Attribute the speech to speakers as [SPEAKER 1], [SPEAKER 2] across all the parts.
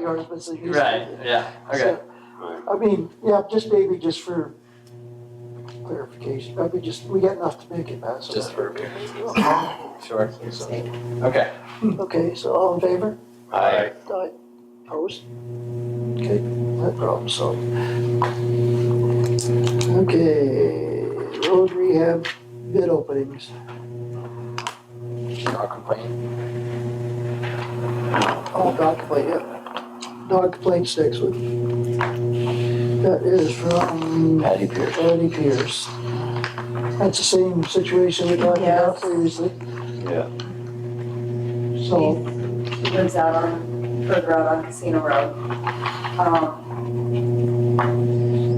[SPEAKER 1] yards was the. used
[SPEAKER 2] Right,
[SPEAKER 1] to be.
[SPEAKER 2] yeah, okay.
[SPEAKER 1] So, I mean, yeah, just maybe just for clarification, maybe just, we got enough to make it, Matt, so.
[SPEAKER 2] Just for, sure. Okay.
[SPEAKER 1] Okay, so all in favor?
[SPEAKER 2] Aye.
[SPEAKER 1] Aye. Opposed? Okay, no problem, so. Okay, road rehab bid openings.
[SPEAKER 2] I'll complain.
[SPEAKER 1] Oh, dog complaint, yeah. Dog complaint six with. That is from
[SPEAKER 2] Patty Pierce.
[SPEAKER 1] Patty Pierce. That's the same situation we talked about
[SPEAKER 3] Yes.
[SPEAKER 1] previously.
[SPEAKER 2] Yeah.
[SPEAKER 1] So.
[SPEAKER 3] He lives out on, further out on Casino Road. Um,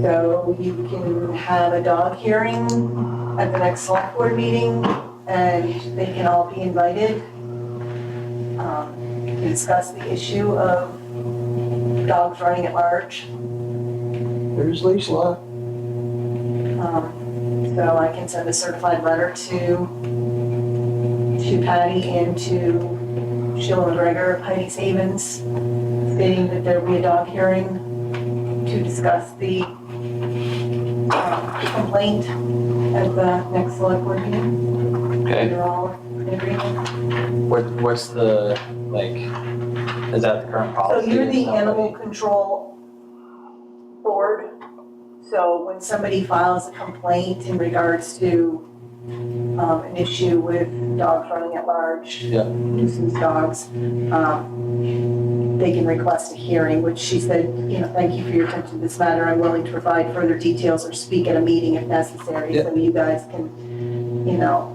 [SPEAKER 3] So you can have a dog hearing at the next select board meeting and they can all be invited. um, to Discuss the issue of dogs running at large.
[SPEAKER 1] There's leash law.
[SPEAKER 3] Um, So I can send a certified letter to, to Patty and to Sheila McGregor of Heidi's Havens stating that there will be a dog hearing to discuss the um, complaint at the next select board meeting.
[SPEAKER 2] Okay,
[SPEAKER 3] They're all in agreement.
[SPEAKER 2] what, what's the, like, is that the current
[SPEAKER 3] So
[SPEAKER 2] policy?
[SPEAKER 3] you're
[SPEAKER 2] or
[SPEAKER 3] the
[SPEAKER 2] somebody-
[SPEAKER 3] animal control board. So when somebody files a complaint in regards to um, an issue with dogs running at large,
[SPEAKER 2] Yeah.
[SPEAKER 3] nuisance dogs, um, they can request a hearing, which she said, you know, thank you for your attention to this matter. I'm willing to provide further details or speak at a meeting if necessary.
[SPEAKER 2] Yeah.
[SPEAKER 3] So you guys can, you know,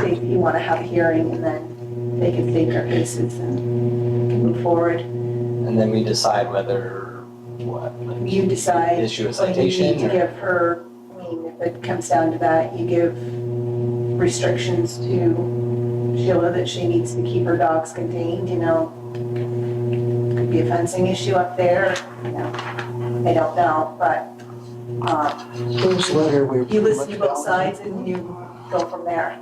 [SPEAKER 3] say if you want to have a hearing and then they can state their cases and move forward.
[SPEAKER 2] And then we decide whether, what, like,
[SPEAKER 3] You decide.
[SPEAKER 2] issue a
[SPEAKER 3] So you need
[SPEAKER 2] citation
[SPEAKER 3] to
[SPEAKER 2] or?
[SPEAKER 3] give her, I mean, if it comes down to that, you give restrictions to Sheila that she needs to keep her dogs contained, you know. Could be a fencing issue up there, you know, I don't know, but, uh,
[SPEAKER 1] This letter we.
[SPEAKER 3] you listen to both sides and you go from there,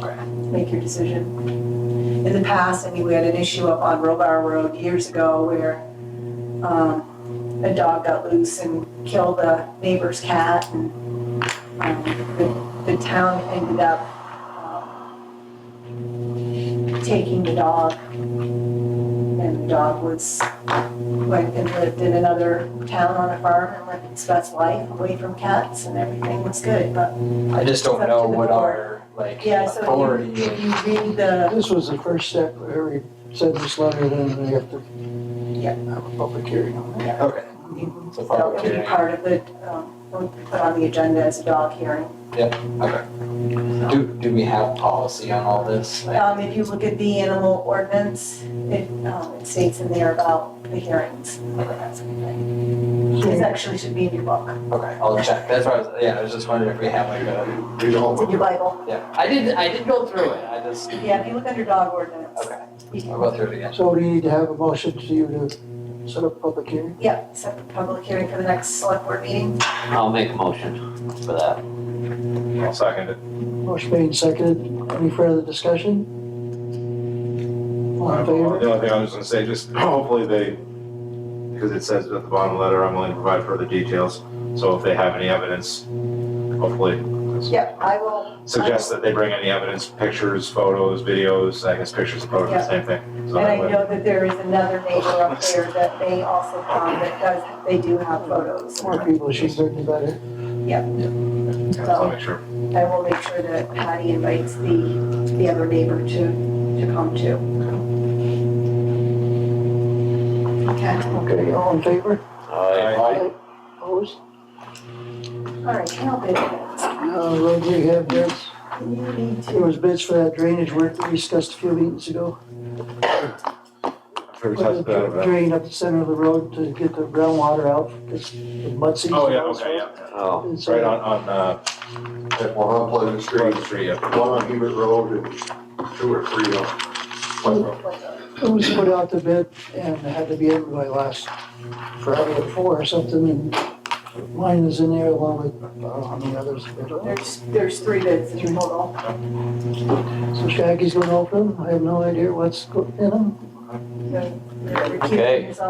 [SPEAKER 2] Okay.
[SPEAKER 3] make your decision. In the past, I mean, we had an issue up on Robar Road years ago where, um, a dog got loose and killed a neighbor's cat and um, the, the town ended up um, taking the dog. And the dog was, went and lived in another town on a farm and lived its best life away from cats and everything was good, but
[SPEAKER 2] I just
[SPEAKER 3] It's
[SPEAKER 2] don't
[SPEAKER 3] up
[SPEAKER 2] know
[SPEAKER 3] to the
[SPEAKER 2] what
[SPEAKER 3] board.
[SPEAKER 2] our, like,
[SPEAKER 3] yeah, so
[SPEAKER 2] authority
[SPEAKER 3] if you, if
[SPEAKER 2] is.
[SPEAKER 3] you read the,
[SPEAKER 1] This was the first step, Harry said this letter, then we have to
[SPEAKER 3] Yeah.
[SPEAKER 1] have a public hearing on it.
[SPEAKER 3] yeah,
[SPEAKER 2] Okay,
[SPEAKER 3] you-
[SPEAKER 2] so
[SPEAKER 3] so
[SPEAKER 2] public
[SPEAKER 3] it'll be
[SPEAKER 2] hearing.
[SPEAKER 3] part of it, um, we'll put on the agenda as a dog hearing.
[SPEAKER 2] Do, do we have policy on all this? Like,
[SPEAKER 3] Um, if you look at the animal ordinance, it, um, it states in there about the hearings. This actually should be in your book,
[SPEAKER 2] Okay, I'll check. That's why I was, yeah, I was just wondering if we have like a,
[SPEAKER 4] We
[SPEAKER 3] it's in
[SPEAKER 4] don't,
[SPEAKER 3] your Bible.
[SPEAKER 2] yeah. I did, I did go through it. I just,
[SPEAKER 3] Yeah, if you look under dog ordinance.
[SPEAKER 2] okay,
[SPEAKER 3] you
[SPEAKER 2] I'll go
[SPEAKER 3] can-
[SPEAKER 2] through it again.
[SPEAKER 1] So we need to have a motion to you to set up a public hearing.
[SPEAKER 3] Yeah, set the public hearing for the next select board meeting.
[SPEAKER 5] I'll make a motion for that.
[SPEAKER 4] I'll second it.
[SPEAKER 1] Motion made and seconded. Any further discussion? All in favor?
[SPEAKER 4] The only thing I was gonna say, just hopefully they, because it says at the bottom of the letter, I'm willing to provide further details. So if they have any evidence, hopefully.
[SPEAKER 3] Yeah, I will,
[SPEAKER 4] Suggest that they bring any evidence, pictures, photos, videos, I guess pictures, and photos,
[SPEAKER 3] Yeah.
[SPEAKER 4] same thing. So
[SPEAKER 3] and I
[SPEAKER 4] that way-
[SPEAKER 3] know that there is another neighbor up there that they also found that does, they do have photos.
[SPEAKER 1] More people should certainly better.
[SPEAKER 4] yeah, so I'll make sure.
[SPEAKER 3] I will make sure that Patty invites the, the other neighbor to, to come too. Okay,
[SPEAKER 1] Okay, all in favor?
[SPEAKER 4] Aye.
[SPEAKER 1] Opposed?
[SPEAKER 3] all right, now
[SPEAKER 1] Uh,
[SPEAKER 3] that,
[SPEAKER 1] road rehab bids.
[SPEAKER 3] you need
[SPEAKER 1] There
[SPEAKER 3] to,
[SPEAKER 1] was bids for that drainage work we discussed a few meetings ago.
[SPEAKER 4] Sure,
[SPEAKER 1] Put
[SPEAKER 4] touch
[SPEAKER 1] the
[SPEAKER 4] that, but-
[SPEAKER 1] drain up the center of the road to get the groundwater out, because the mud seeps.
[SPEAKER 4] Oh, yeah,
[SPEAKER 1] and all
[SPEAKER 4] okay, yeah.
[SPEAKER 5] Oh,
[SPEAKER 1] And so-
[SPEAKER 4] Right on, on, uh,
[SPEAKER 6] At one on Pleasant Street,
[SPEAKER 4] Pleasant Street, yeah.
[SPEAKER 6] one on Hebert Road, and two or three on Pleasant Road.
[SPEAKER 1] It was put out to bid and it had to be in by last Friday or four or something, and mine is in there along with, uh, how many others.
[SPEAKER 3] there's, there's three bids in total.
[SPEAKER 1] So Shaggy's gonna open them, I have no idea what's go- in them.
[SPEAKER 3] So, we're recusing
[SPEAKER 5] Okay.
[SPEAKER 3] ourselves.